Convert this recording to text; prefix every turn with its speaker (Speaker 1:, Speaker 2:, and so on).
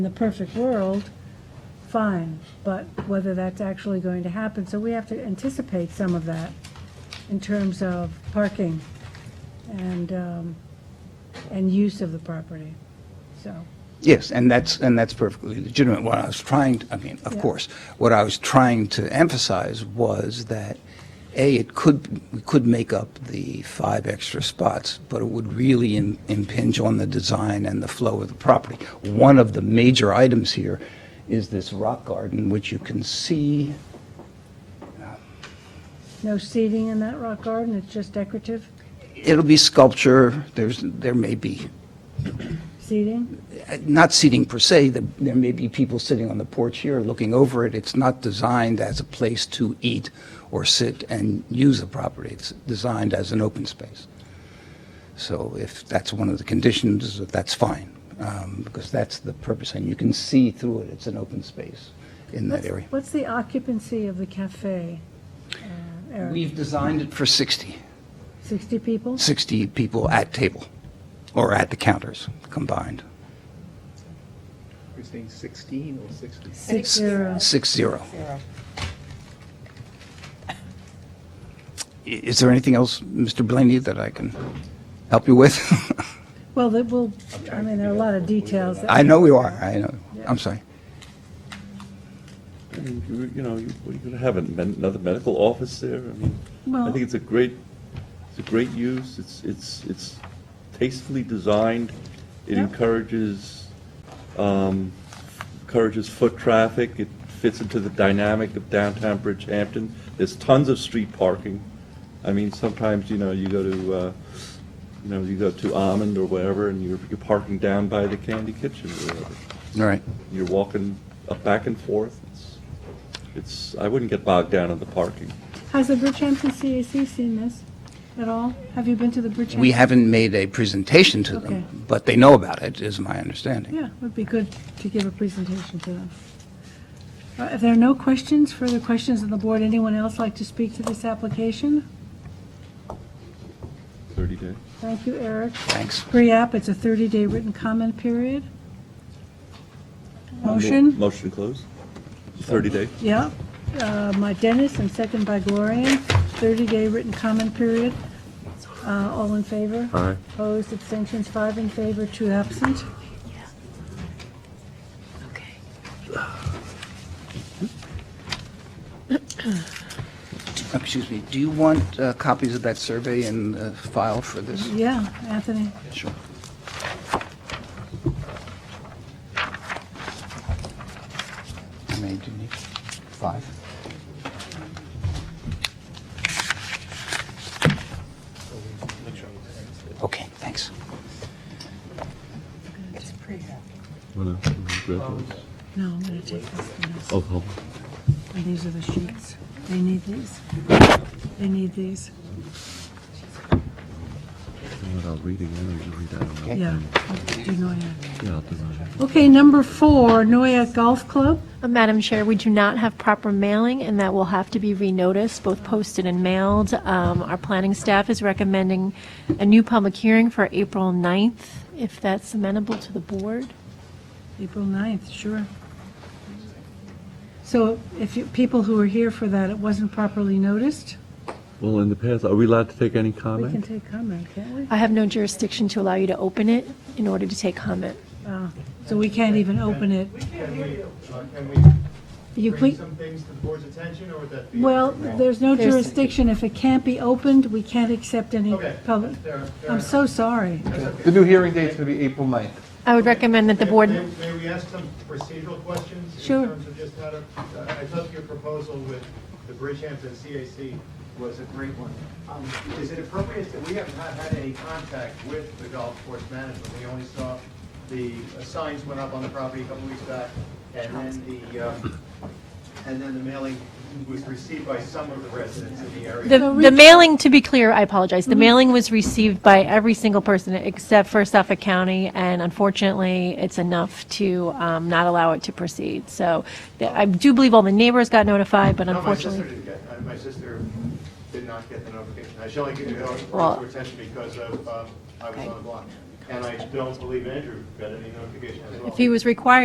Speaker 1: In the perfect world, fine, but whether that's actually going to happen, so we have to anticipate some of that in terms of parking and, um, and use of the property, so.
Speaker 2: Yes, and that's, and that's perfectly legitimate. What I was trying, to- I mean, of
Speaker 1: Yeah.
Speaker 2: course, what I was trying to emphasize was that, A, it could, we could make up the five extra spots, but it would really im- impinge on the design and the flow of the property. One of the major items here is this rock garden, which you can see,
Speaker 1: No seating in that rock garden, it's just decorative
Speaker 2: it'll be sculpture, there's, there may be
Speaker 1: seating?
Speaker 2: not seating per se, the- there may be people sitting on the porch here looking over it. It's not designed as a place to eat or sit and use the property. It's designed as an open space. So if that's one of the conditions, that's fine, um, because that's the purpose. And you can see through it, it's an open space in that
Speaker 1: What's-
Speaker 2: area.
Speaker 1: What's the occupancy of the cafe, uh, Eric?
Speaker 2: We've designed it for 60,
Speaker 1: 60 people?
Speaker 2: 60 people at table or at the counters combined.
Speaker 3: You're saying 16 or 60?
Speaker 1: Six zero.
Speaker 2: Six zero. I- Is there anything else, Mr. Blaney, that I can help you with?
Speaker 1: Well, that will, I mean, there are a lot of details. that-
Speaker 2: I know you are, I know. I'm sorry.
Speaker 4: I mean, You you know, you- we're going to have a men- another medical office there. I mean, I
Speaker 1: Well-
Speaker 4: think it's a great, it's a great use. It's, it's, it's tastefully designed. It
Speaker 1: Yeah.
Speaker 4: encourages, um, encourages foot traffic. It fits into the dynamic of downtown Bridgehampton. There's tons of street parking. I mean, sometimes, you know, you go to, uh, you know, you go to Almond or wherever, and you're, you're parking down by the Candy Kitchen or whatever
Speaker 2: All right.
Speaker 4: you're walking up back and forth. It's, it's, I wouldn't get bogged down in the parking.
Speaker 1: Has the Bridgehampton CAC seen this at all? Have you been to the Bridgehampton?
Speaker 2: We haven't made a presentation to
Speaker 1: Okay.
Speaker 2: them, but they know about it, is my understanding.
Speaker 1: Yeah, it would be good to give a presentation to them. Uh, If there are no questions, further questions on the board, anyone else like to speak to this application?
Speaker 4: Thirty day.
Speaker 1: Thank you, Eric.
Speaker 2: Thanks.
Speaker 1: Pre-app, it's a 30-day written comment period. Motion?
Speaker 4: Motion close. Thirty day.
Speaker 1: Yeah. Uh, My Dennis, and second by Gloria, 30-day written comment period. Uh, All in favor?
Speaker 4: Aye.
Speaker 1: Opposed, abstentions, five in favor, two absent.
Speaker 2: Excuse me, do you want uh, copies of that survey in the file for this?
Speaker 1: Yeah, Anthony?
Speaker 2: Sure. How many do you need? Five? Okay, thanks.
Speaker 1: No, I'm going to take this one.
Speaker 4: Oh,
Speaker 1: And these are the sheets. They need these. They need these.
Speaker 4: I'll read again. I'll read that.
Speaker 1: Yeah. Do Noyak. Okay, number four, Noyak Golf Club.
Speaker 5: Uh, Madam Chair, we do not have proper mailing, and that will have to be renoticed, both posted and mailed. Um, Our planning staff is recommending a new public hearing for April 9th, if that's amenable to the board.
Speaker 1: April 9th, sure. So if you, people who were here for that, it wasn't properly noticed,
Speaker 4: Well, in the past, are we allowed to take any
Speaker 1: we can
Speaker 4: comment?
Speaker 1: take comment, can't we?
Speaker 5: I have no jurisdiction to allow you to open it in order to take comment.
Speaker 1: Ah, So we can't even open it.
Speaker 6: Can we, uh, can we
Speaker 1: You
Speaker 6: bring
Speaker 1: quick,
Speaker 6: some things to the board's attention, or would that be?
Speaker 1: well, there's no
Speaker 5: There's-
Speaker 1: jurisdiction. If it can't be opened, we can't accept any
Speaker 6: Okay,
Speaker 1: public.
Speaker 6: fair- fair
Speaker 1: I'm
Speaker 6: enough.
Speaker 1: so sorry.
Speaker 7: The new hearing date's gonna be April 9th.
Speaker 5: I would recommend that the
Speaker 6: May-
Speaker 5: board...
Speaker 6: May may we ask some procedural questions?
Speaker 1: Sure.
Speaker 6: In terms of just how to, uh, I thought your proposal with the Bridgehampton CAC was a great one. Um, Is it appropriate that we have not had any contact with the golf course management? We only saw the uh, signs went up on the property a couple weeks back, and then the, uh, and then the mailing was received by some of the residents in the area.
Speaker 5: The, the mailing, to be clear, I apologize, the mailing was received by every single person except for Suffolk County, and unfortunately, it's enough to um, not allow it to proceed. So th- I do believe all the neighbors got notified, but
Speaker 6: No, my sister
Speaker 5: unfortunately,
Speaker 6: didn't get, uh, my sister did not get the notification. I should only get it
Speaker 5: Well-
Speaker 6: to attention because uh, of, um, I was on the block. And I don't believe Andrew got any notification as well.
Speaker 5: if he was required